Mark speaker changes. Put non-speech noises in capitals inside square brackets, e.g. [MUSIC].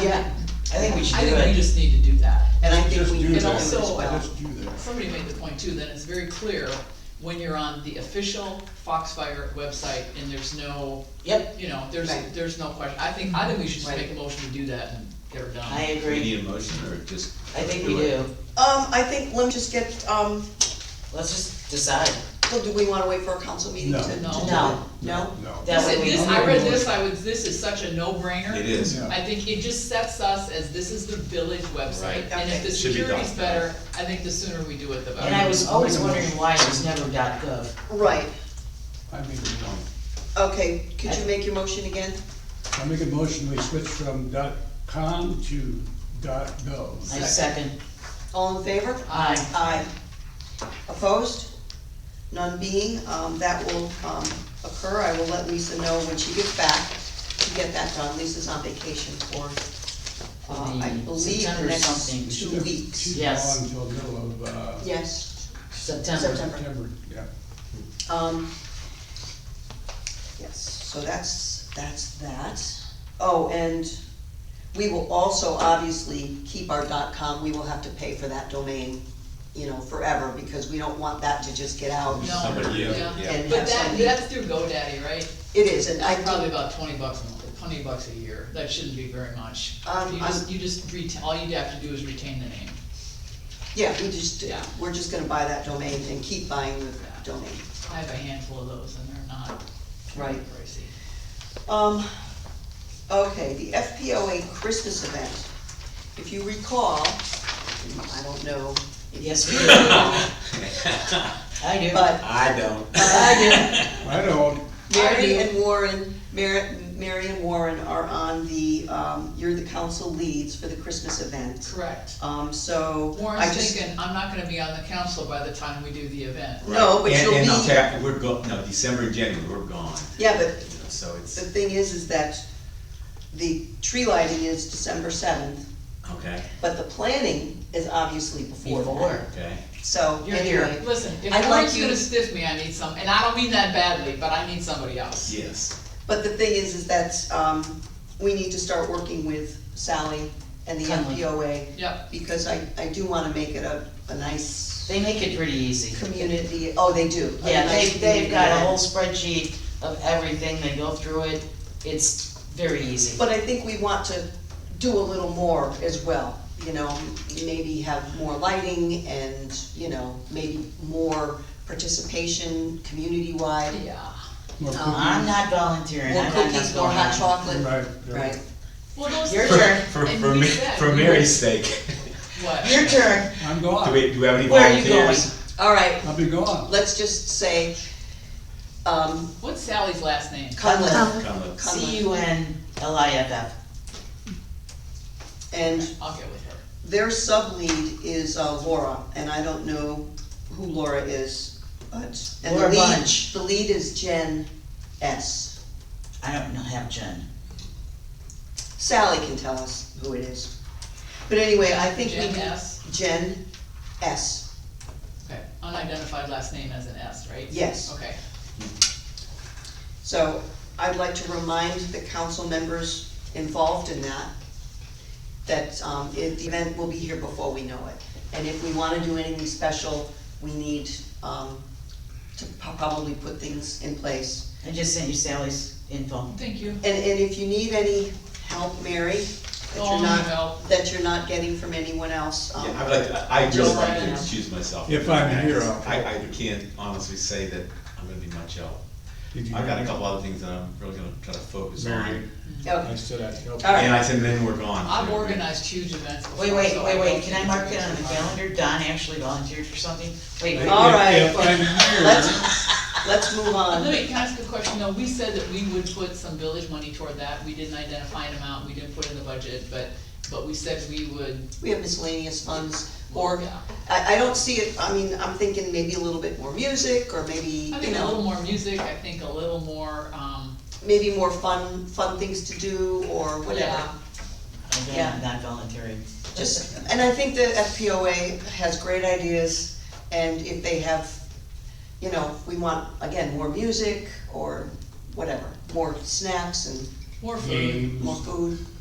Speaker 1: Yeah,
Speaker 2: I think we should
Speaker 3: I
Speaker 2: do
Speaker 3: think we
Speaker 2: it.
Speaker 3: just need to do that.
Speaker 1: and I think
Speaker 4: Just
Speaker 1: we.
Speaker 4: do
Speaker 3: And
Speaker 4: that.
Speaker 3: also, uh,
Speaker 4: Just do that.
Speaker 3: somebody made the point too, that it's very clear when you're on the official Foxfire website and there's no,
Speaker 2: Yep,
Speaker 3: you know, there's,
Speaker 1: Right.
Speaker 3: there's no question. I think, I think we should just
Speaker 1: Right.
Speaker 3: make a motion to do that and get her
Speaker 2: I
Speaker 3: done.
Speaker 5: Do we
Speaker 2: agree.
Speaker 5: need a motion or just?
Speaker 2: I think we
Speaker 5: it?
Speaker 2: do.
Speaker 1: Um, I think, let me just get, um,
Speaker 2: Let's just decide.
Speaker 1: well, do we wanna wait for a council meeting
Speaker 4: No.
Speaker 1: to? to
Speaker 3: No.
Speaker 1: do
Speaker 2: No.
Speaker 1: it? No?
Speaker 4: No.
Speaker 2: That way we.
Speaker 3: This, I read this, I was, this is such a
Speaker 5: It
Speaker 3: no-brainer.
Speaker 5: is.
Speaker 4: Yeah.
Speaker 3: I think it just sets us as this is the village website,
Speaker 5: Right.
Speaker 3: and if
Speaker 1: Okay.
Speaker 3: the
Speaker 5: Should be
Speaker 3: security's
Speaker 5: done.
Speaker 3: better, I think the sooner we do it, the
Speaker 2: And I
Speaker 3: better.
Speaker 2: was always wondering why it was never dot gov.
Speaker 1: Right,
Speaker 4: I make a, no.
Speaker 1: okay, could you make your motion again?
Speaker 4: I make a motion, we switch from dot com to dot gov.
Speaker 2: I second.
Speaker 1: All in favor?
Speaker 3: Aye.
Speaker 1: Aye. Opposed? None being, um, that will, um, occur, I will let Lisa know when she gets back to get that done, Lisa's on vacation for, uh, I
Speaker 2: For the
Speaker 1: believe the
Speaker 2: September something.
Speaker 1: next two weeks.
Speaker 4: She's
Speaker 2: Yes.
Speaker 4: gone until middle of, uh,
Speaker 1: Yes,
Speaker 2: September.
Speaker 1: September.
Speaker 4: September, yeah.
Speaker 1: um, yes, so that's, that's that. Oh, and we will also obviously keep our dot com, we will have to pay for that domain, you know, forever, because we don't want that to just get out.
Speaker 3: No,
Speaker 5: Somebody, yeah,
Speaker 3: yeah.
Speaker 5: yeah.
Speaker 1: And
Speaker 3: But that,
Speaker 1: have somebody-
Speaker 3: that's through GoDaddy, right?
Speaker 1: It is, and I
Speaker 3: It's probably
Speaker 1: probably,
Speaker 3: about twenty bucks, a month, twenty bucks a year, that shouldn't be very much.
Speaker 1: Um,
Speaker 3: You just, you just retain, all you'd have to do is retain the name.
Speaker 1: yeah, we just,
Speaker 3: Yeah.
Speaker 1: we're just gonna buy that domain and keep buying the domain.
Speaker 3: I have a handful of those and they're not
Speaker 1: Right.
Speaker 3: pricey.
Speaker 1: Um, okay, the FPOA Christmas event. If you recall, I don't know,
Speaker 2: Yes, we [LAUGHS] do. I do.
Speaker 1: but
Speaker 5: [LAUGHS] I don't.
Speaker 4: I don't,
Speaker 1: Mary and Warren, Mary, Mary and Warren are on the, um, you're the council leads for the Christmas event.
Speaker 3: Correct.
Speaker 1: Um, so I
Speaker 3: Warren's
Speaker 1: just,
Speaker 3: thinking, I'm not gonna be on the council by the time we do the event.
Speaker 1: No, but
Speaker 5: And-
Speaker 1: you'll
Speaker 5: And I'll
Speaker 1: be-
Speaker 5: tell you, we're go, no, December and January, we're gone,
Speaker 1: yeah, but
Speaker 5: you know, so
Speaker 1: the
Speaker 5: it's,
Speaker 1: thing is, is that the tree lighting is December seventh,
Speaker 5: okay,
Speaker 1: but the planning is obviously before
Speaker 2: Before.
Speaker 1: that.
Speaker 5: okay.
Speaker 1: So
Speaker 2: You're here.
Speaker 1: anyway,
Speaker 3: Listen, if
Speaker 1: I'd like
Speaker 3: Warren's
Speaker 1: you-
Speaker 3: gonna stiff me, I need some, and I don't mean that badly, but I need somebody else.
Speaker 5: Yes,
Speaker 1: but the thing is, is that, um, we need to start working with Sally and the
Speaker 2: Conley.
Speaker 1: MPOA
Speaker 3: Yep,
Speaker 1: because I, I do wanna make it a, a nice
Speaker 2: They make it pretty easy.
Speaker 1: community, oh, they do. a
Speaker 2: Yeah, they,
Speaker 1: nice
Speaker 2: they've
Speaker 1: community
Speaker 2: got a
Speaker 1: event.
Speaker 2: whole spreadsheet of everything, they go through it, it's very easy.
Speaker 1: But I think we want to do a little more as well, you know, maybe have more lighting and, you know, maybe more participation community-wide.
Speaker 3: yeah.
Speaker 4: more
Speaker 1: No,
Speaker 2: I'm
Speaker 4: cookies.
Speaker 2: not volunteering,
Speaker 1: More
Speaker 2: I don't know what's
Speaker 1: cookies, more
Speaker 2: going
Speaker 1: hot
Speaker 2: on.
Speaker 1: chocolate,
Speaker 4: Right, right.
Speaker 1: Uh-huh. right?
Speaker 3: Well, those.
Speaker 2: Your
Speaker 5: For,
Speaker 2: turn.
Speaker 5: for,
Speaker 3: And
Speaker 5: for
Speaker 3: we
Speaker 5: Ma-
Speaker 3: said
Speaker 5: for
Speaker 3: we
Speaker 5: Mary's sake, [LAUGHS]
Speaker 3: What?
Speaker 2: Your [LAUGHS] turn,
Speaker 4: I'm
Speaker 5: do
Speaker 4: gone,
Speaker 5: we, do we have any
Speaker 2: where are you going?
Speaker 5: volunteers?
Speaker 1: All right,
Speaker 4: I'll be gone.
Speaker 1: let's just say, um,
Speaker 3: What's Sally's last name?
Speaker 1: Cunliffe
Speaker 5: Come look.
Speaker 2: C U N L I F F.
Speaker 1: and
Speaker 3: I'll get with her.
Speaker 1: their sub-lead is uh, Laura, and I don't know who Laura is, but. and the
Speaker 2: Laura
Speaker 1: lead-
Speaker 2: Bunch.
Speaker 1: The lead is Jen S.
Speaker 2: I don't know, have Jen.
Speaker 1: Sally can tell us who it is. But anyway, I think we.
Speaker 3: Jen
Speaker 1: do-
Speaker 3: S?
Speaker 1: Jen S,
Speaker 3: Okay, unidentified last name as an S, right?
Speaker 1: yes.
Speaker 3: Okay,
Speaker 1: So I'd like to remind the council members involved in that, that um, if the event will be here before we know it. And if we wanna do anything special, we need um, to po- probably put things in place.
Speaker 2: I just sent you Sally's info.
Speaker 3: thank you.
Speaker 1: And, and if you need any help, Mary, that
Speaker 3: Oh,
Speaker 1: you're not,
Speaker 3: no.
Speaker 1: that you're not getting from anyone else. um,
Speaker 5: Yeah, I'd like, to- I really
Speaker 3: Just
Speaker 5: like to
Speaker 3: right.
Speaker 5: excuse myself.
Speaker 4: If I'm
Speaker 5: I-
Speaker 4: here, I'll-
Speaker 5: I, I can't honestly say that I'm gonna be much help.
Speaker 4: Did you
Speaker 5: I've got a
Speaker 4: hear
Speaker 5: couple other things that I'm really gonna try to focus
Speaker 4: Mary.
Speaker 5: on.
Speaker 1: Okay.
Speaker 4: I said I'd help.
Speaker 1: All right.
Speaker 5: And I said, then we're gone.
Speaker 3: I've organized huge events before.
Speaker 2: Wait, wait,
Speaker 3: so
Speaker 2: wait,
Speaker 3: I
Speaker 2: wait,
Speaker 3: don't
Speaker 2: can I
Speaker 3: think
Speaker 2: mark it
Speaker 3: it's
Speaker 2: on the
Speaker 3: fine.
Speaker 2: calendar? Don actually volunteered for something? Wait, wait.
Speaker 1: All right, Oh,
Speaker 4: If
Speaker 1: but
Speaker 4: I'm here,
Speaker 1: let's, let's move
Speaker 3: Uh, Let
Speaker 1: on.
Speaker 3: me, can I ask a question though? We said that we would put some village money toward that. We didn't identify an amount, we didn't put in the budget, but, but we said we would.
Speaker 1: We have miscellaneous funds, or,
Speaker 3: Yeah.
Speaker 1: I, I don't see it, I mean, I'm thinking maybe a little bit more music, or maybe,
Speaker 3: I um,
Speaker 1: you
Speaker 3: think a little
Speaker 1: know,
Speaker 3: more music, I think a little more, um,
Speaker 1: maybe more fun, fun things to do, or whatever.
Speaker 3: yeah.
Speaker 2: Again,
Speaker 1: Yeah.
Speaker 2: I'm not volunteering.
Speaker 1: Just, and I think the FPOA has great ideas, and if they have, you know, we want, again, more music, or whatever, more snacks and
Speaker 3: More food.
Speaker 4: games,
Speaker 1: more food,